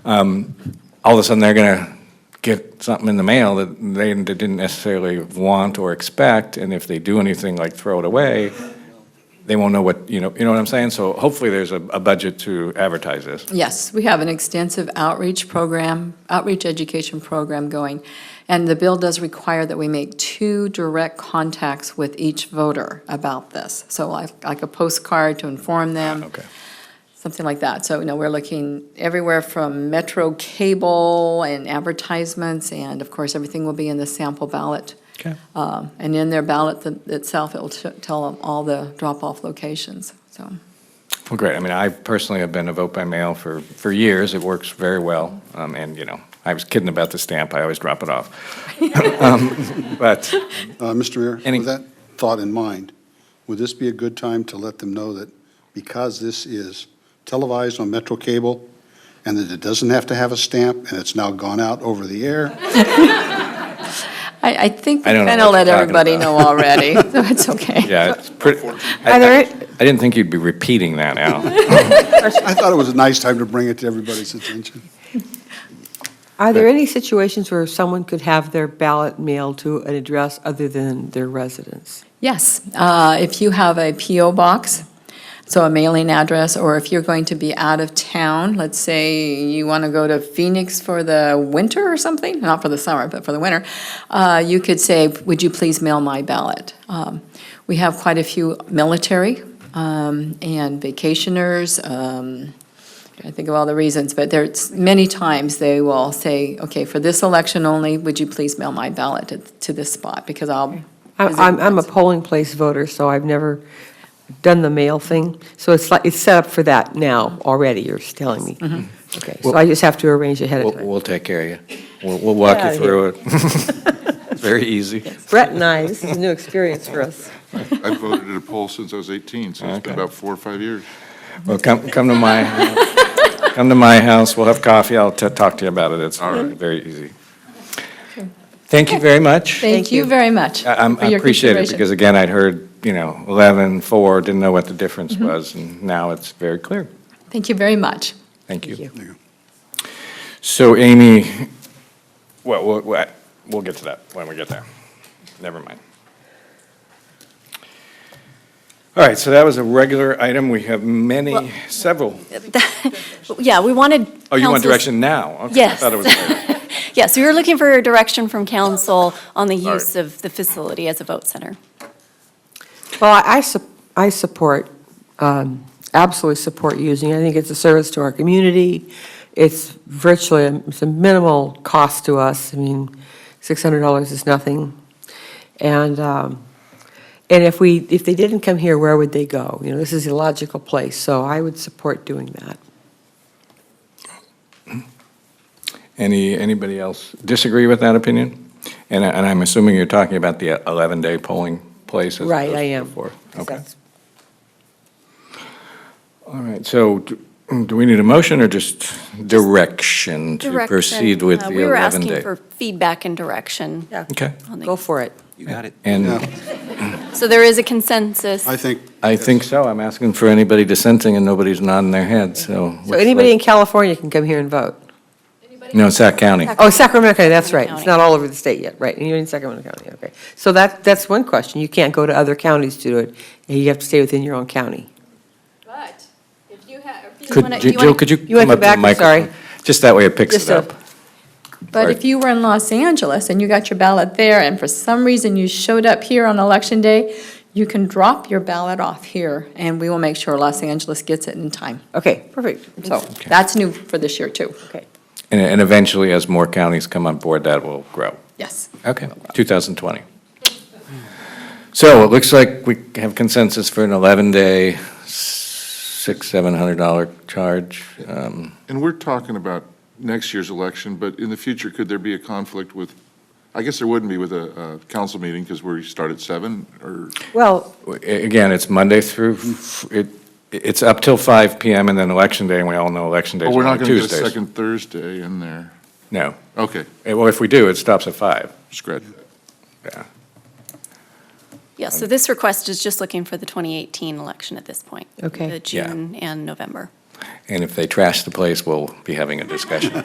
Um, all of a sudden they're going to get something in the mail that they didn't necessarily want or expect, and if they do anything like throw it away, they won't know what, you know, you know what I'm saying? So hopefully there's a, a budget to advertise this. Yes, we have an extensive outreach program, outreach education program going. And the bill does require that we make two direct contacts with each voter about this. So like, like a postcard to inform them. Ah, Okay. Something like that. So, you know, we're looking everywhere from metro cable and advertisements, and of course, everything will be in the sample ballot. Okay. Uh, And in their ballot th- itself, it'll t- tell them all the drop-off locations, so. Well, great. I mean, I personally have been a vote by mail for, for years. It works very well. Um, and, you know, I was kidding about the stamp. I always drop it off. um, but, Uh, Mr. Mayor, Any- with that thought in mind, would this be a good time to let them know that because this is televised on Metro Cable and that it doesn't have to have a stamp and it's now gone out over the air? I, I think we I don't know kind of what let you're talking everybody know about. already, so it's okay. yeah, it's pretty. Are I, there- I, I didn't think you'd be repeating that, Al. I thought it was a nice time to bring it to everybody's attention. Are there any situations where someone could have their ballot mailed to an address other than their residence? Yes, uh, if you have a PO box, so a mailing address, or if you're going to be out of town, let's say you want to go to Phoenix for the winter or something, not for the summer, but for the winter, uh, you could say, would you please mail my ballot? Um, We have quite a few military um, and vacationers, um, I think of all the reasons, but there's, many times they will say, okay, for this election only, would you please mail my ballot to- to this spot, because I'll. I- visit I'm, I'm a this." polling place voter, so I've never done the mail thing. So it's like, it's set up for that now already, you're telling me. Okay, so I just have to arrange ahead Mm-hmm. We'll, of we'll time. take care of you. We'll, we'll walk Get you outta here. through it. It's Very easy. Brett and I, this is a new experience for us. I've voted at a poll since I was 18, so it's been Okay. about four or five years. Well, come, come to my, come to my house, we'll have coffee, I'll t- talk to you about it, it's Mm-hmm. very easy. Thank you very much. I Thank you very much. I'm- for I your appreciate it, consideration. because again, I'd heard, you know, 11, 4, didn't know what the difference Mm-hmm. was, and now it's very clear. Thank you very much. Thank you. Thank So Amy, well, we'll- we'll, we'll get to that when we get there. Never mind. All right, so that was a regular item. We have Well- many, several. Yeah, we wanted. Oh, you want council's- direction now? Okay, I Yes. thought it was later. Yeah, so we were looking for direction from council on the All right. use of the facility as a vote center. Well, I- I, sup- I support, um, absolutely support using it. I think it's a service to our community. It's virtually, um, it's a minimal cost to us. I mean, $600 is nothing. And, um, and if we, if they didn't come here, where would they go? You know, this is a logical place, so I would support doing that. Any, anybody else disagree with that opinion? And, I- and I'm assuming you're talking about the 11-day polling place as Right, opposed I to am. before. Okay, That's- all right, so do do we need a motion or just direction to Direction, proceed with the uh, 11-day? We were asking for feedback and direction. Yeah. Okay, on the- Go for it. and Yeah. So there is a consensus. I think, I think so, I'm asking for anybody dissenting and nobody's nodding their head, so. So anybody in California can come here and vote. No, Sac County. Oh, Sacramento County, that's right. It's County. not all over the state yet, right. You're in Sacramento County, okay. So that, that's one question. You can't go to other counties to do it. and You have to stay within your own county. But if you have, if Could, Jill, could you You wanna come up to come the back? I'm sorry. microphone? Just that way it picks Just it up. a- But Right. if you were in Los Angeles and you got your ballot there, and for some reason you showed up here on Election Day, you can drop your ballot off here, and we will make sure Los Angeles gets it in time. Okay, perfect. So that's new for this year, too. Okay. And, and eventually, as more counties come on board, that will grow. Yes. Okay, 2020. So it looks like we have consensus for an 11-day, six, $700 charge. Um, And we're talking about next year's election, but in the future, could there be a conflict with, I guess there wouldn't be with a, uh council meeting because we start at seven or, Well, a- Again, it's Monday through, f- it, it's up till 5 PM and then Election Day, and we all know Election Day oh, is we're on not going to get a Tuesdays. second Thursday in there. No. Okay, Eh, Well, if we do, it stops at 5. scratch that. Yeah. Yeah, so this request is just looking for the 2018 election at this point. Okay. The Yeah. June and November. And if they trash the place, we'll be having a discussion.